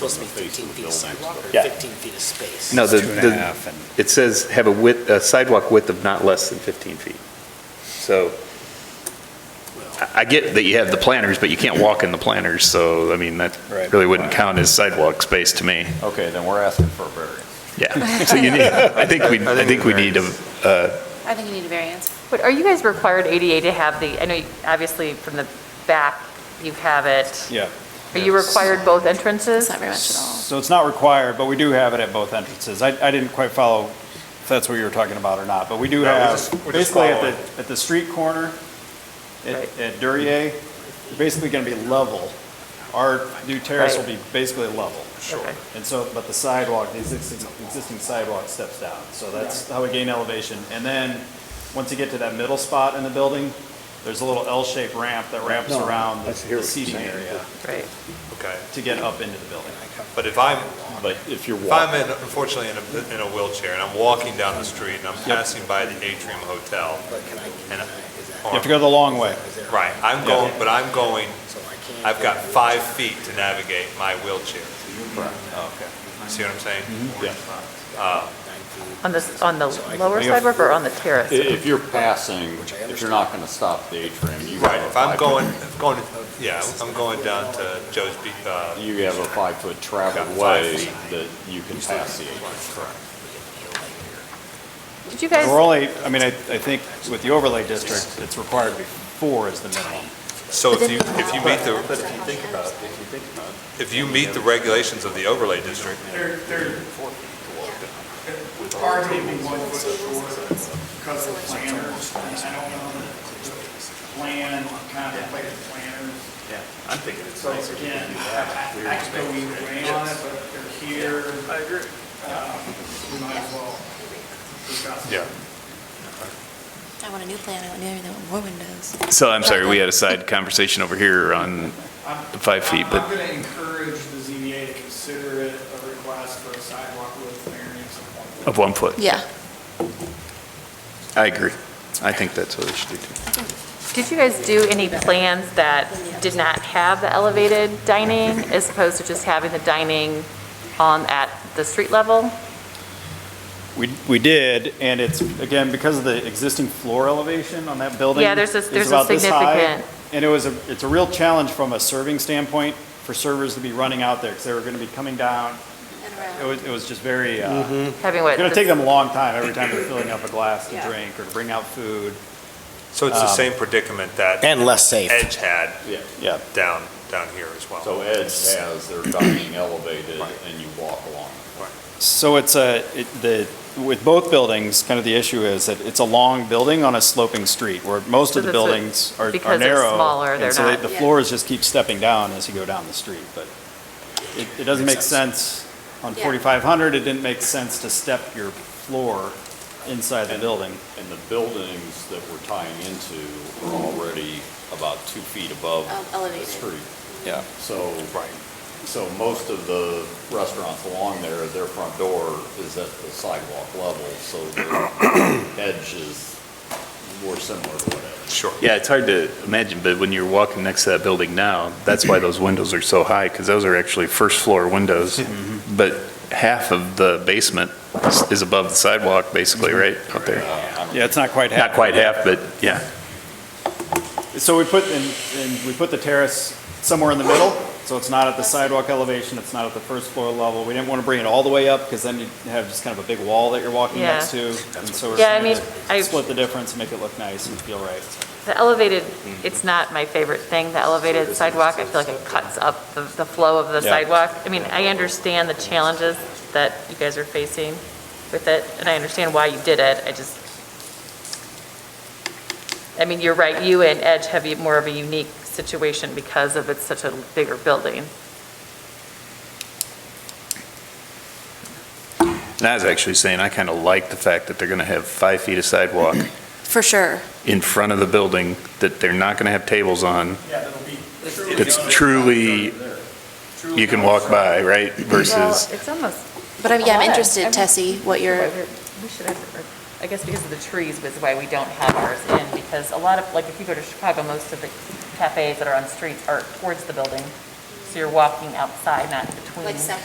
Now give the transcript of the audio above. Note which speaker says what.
Speaker 1: supposed to be 15 feet of sidewalk or
Speaker 2: Yeah.
Speaker 1: 15 feet of space.
Speaker 2: No, the,
Speaker 3: Two and a
Speaker 2: the,
Speaker 3: half, and
Speaker 2: it says have a width, a sidewalk width of not less than 15 feet. So I- I get that you have the planters, but you can't walk in the planters, so, I mean, that
Speaker 3: Right.
Speaker 2: really wouldn't count as sidewalk space to me.
Speaker 4: Okay, then we're asking for a variance.
Speaker 2: Yeah. So you need, I think we, I think we need a, uh,
Speaker 5: I think you need a variance.
Speaker 6: But are you guys required ADA to have the, I know, you- obviously, from the back, you have it.
Speaker 3: yeah.
Speaker 6: Are you required both entrances?
Speaker 5: It's not very much at all.
Speaker 3: So it's not required, but we do have it at both entrances. I, I didn't quite follow if that's what you were talking about or not, but we do
Speaker 7: No, we
Speaker 3: have,
Speaker 7: just- we just
Speaker 3: basically at
Speaker 7: follow
Speaker 3: the, at the street corner, at,
Speaker 6: Right.
Speaker 3: at Durier, basically gonna be level. Our new terrace will
Speaker 6: Right.
Speaker 3: be basically level.
Speaker 6: Sure. Okay.
Speaker 3: And so, but the sidewalk, the existing, existing sidewalk steps down, so that's how we gain elevation. And then, once you get to that middle spot in the building, there's a little L-shaped ramp that ramps
Speaker 7: No,
Speaker 3: around the
Speaker 7: I see what
Speaker 3: the
Speaker 7: you're
Speaker 3: seating
Speaker 7: saying.
Speaker 3: area
Speaker 6: Right.
Speaker 7: Okay,
Speaker 3: to get up into the building.
Speaker 7: but if I'm,
Speaker 4: But if you're
Speaker 7: if I'm
Speaker 4: walking,
Speaker 7: in, unfortunately in a, in a wheelchair and I'm walking down the street and I'm passing by the Atrium Hotel,
Speaker 1: But can I,
Speaker 7: and,
Speaker 1: is that,
Speaker 3: You have to go the long way.
Speaker 1: is there?
Speaker 7: right, I'm going, but I'm going,
Speaker 1: So I can't.
Speaker 7: I've
Speaker 1: go
Speaker 7: got
Speaker 1: to the
Speaker 7: five feet to navigate my wheelchair. Okay. See what I'm saying?
Speaker 4: Oh, Mm-hmm. Yeah.
Speaker 1: nine feet.
Speaker 6: On the, on the
Speaker 1: So I can-
Speaker 6: lower sidewalk or on the
Speaker 4: i-
Speaker 6: terrace?
Speaker 4: if you're passing, if you're not going to stop the atrium, you
Speaker 7: Right,
Speaker 4: have a
Speaker 7: if I'm
Speaker 4: five-foot-
Speaker 7: going, if going, to- yeah, I'm going down to Joe's Beach, uh,
Speaker 4: You have a five-foot
Speaker 7: Got five
Speaker 4: traveled way
Speaker 7: feet.
Speaker 4: that you can pass the atrium.
Speaker 6: Did you guys,
Speaker 3: We're only, I mean, I, I think with the overlay district, it's required to be four is the minimum.
Speaker 7: So if you, if you meet the. if you meet the regulations of the overlay district,
Speaker 8: They're, they're. Hard to be one foot short because of planners, and I don't know that the plan, contemplated planners. Yeah, I'm thinking it's So again, I, I- I could go either way on it, but if they're here. I agree. We might as well discuss it.
Speaker 7: yeah.
Speaker 5: I want a new plan, I want new everything, I want more windows.
Speaker 2: so I'm sorry, we had a side conversation over here on
Speaker 8: I'm-
Speaker 2: the five feet,
Speaker 8: I'm-
Speaker 2: but.
Speaker 8: I'm going to encourage the ZBA to consider it a request for a sidewalk with variance of one foot.
Speaker 2: Of one foot.
Speaker 5: Yeah.
Speaker 2: I agree. I think that's what it should do too.
Speaker 6: did you guys do any plans that did not have the elevated dining as opposed to just having the dining on, at the street level?
Speaker 3: We, we did, and it's, again, because of the existing floor elevation on that building.
Speaker 6: Yeah, there's a-
Speaker 3: is
Speaker 6: there's a
Speaker 3: about this high,
Speaker 6: significant-
Speaker 3: And it was a, it's a real challenge from a serving standpoint for servers to be running out there, because they were gonna be coming down. It was, it was just very, uh,
Speaker 6: Mm-hmm. Having what?
Speaker 3: it's gonna
Speaker 6: the-
Speaker 3: take them a long time every time they're filling up a glass to
Speaker 6: Yeah.
Speaker 3: drink or to bring out food.
Speaker 7: So it's the
Speaker 4: Um,
Speaker 7: same predicament that
Speaker 1: And less safe.
Speaker 7: Edge had
Speaker 3: Yeah.
Speaker 7: down, down here as well.
Speaker 4: So Ed's has their dining elevated and you walk along.
Speaker 3: So it's a, it- the, with both buildings, kind of the issue is that it's a long building on a sloping street where most
Speaker 6: So
Speaker 3: of the
Speaker 6: that's what-
Speaker 3: buildings are are narrow.
Speaker 6: because they're smaller, they're
Speaker 3: And so they-
Speaker 6: not-
Speaker 3: the floors just keep stepping down as you go down the street, but it, it doesn't make sense. On
Speaker 5: Yeah.
Speaker 3: 4,500, it didn't make sense to step your floor inside the building.
Speaker 4: And the buildings that we're tying into are already about two feet above
Speaker 5: Um,
Speaker 4: the
Speaker 5: elevated.
Speaker 4: street.
Speaker 3: Yeah.
Speaker 4: So. Right. So most of the restaurants along there, their front door is at the sidewalk level, so the edge is more similar to what Ed's.
Speaker 7: Sure.
Speaker 2: Yeah, it's hard to imagine, but when you're walking next to that building now, that's why those windows are so high, because those are actually first-floor windows.
Speaker 8: Mm-hmm.
Speaker 2: But half of the basement is- is above the sidewalk, basically, right,
Speaker 8: Mm-hmm.
Speaker 2: out there?
Speaker 3: Yeah, it's not quite half.
Speaker 2: Not quite half, but yeah.
Speaker 3: So we put, and, and we put the terrace somewhere in the middle, so it's not at the sidewalk elevation, it's not at the first floor level. We didn't want to bring it all the way up, because then you have just kind of a big wall that you're walking
Speaker 6: Yeah.
Speaker 3: next to. And so we're
Speaker 6: Yeah, I
Speaker 3: trying
Speaker 6: mean,
Speaker 3: to
Speaker 6: I-
Speaker 3: split the difference and make it look nice and feel right.
Speaker 6: The elevated, it's not my favorite thing, the elevated sidewalk, I feel like it cuts up the, the flow of the
Speaker 3: Yeah.
Speaker 6: sidewalk. I mean, I understand the challenges that you guys are facing with it, and I understand why you did it, I just, I mean, you're right, you and Edge have a- more of a unique situation because of it's such a bigger building.
Speaker 2: And I was actually saying, I kind of like the fact that they're going to have five feet of sidewalk
Speaker 5: For sure.
Speaker 2: in front of the building, that they're not going to have tables on,
Speaker 8: Yeah, that'll be.
Speaker 2: that's truly, you can walk by, right, versus...
Speaker 6: Well, it's almost.
Speaker 5: But I'm, yeah, I'm
Speaker 6: I love it.
Speaker 5: interested,
Speaker 6: I'm-
Speaker 5: Tessie, what your,
Speaker 6: We should have, I guess because of the trees was why we don't have ours in, because a lot of, like, if you go to Chicago, most of the cafes that are on streets are towards the building.
Speaker 9: so you're walking outside, not between.
Speaker 6: Like separate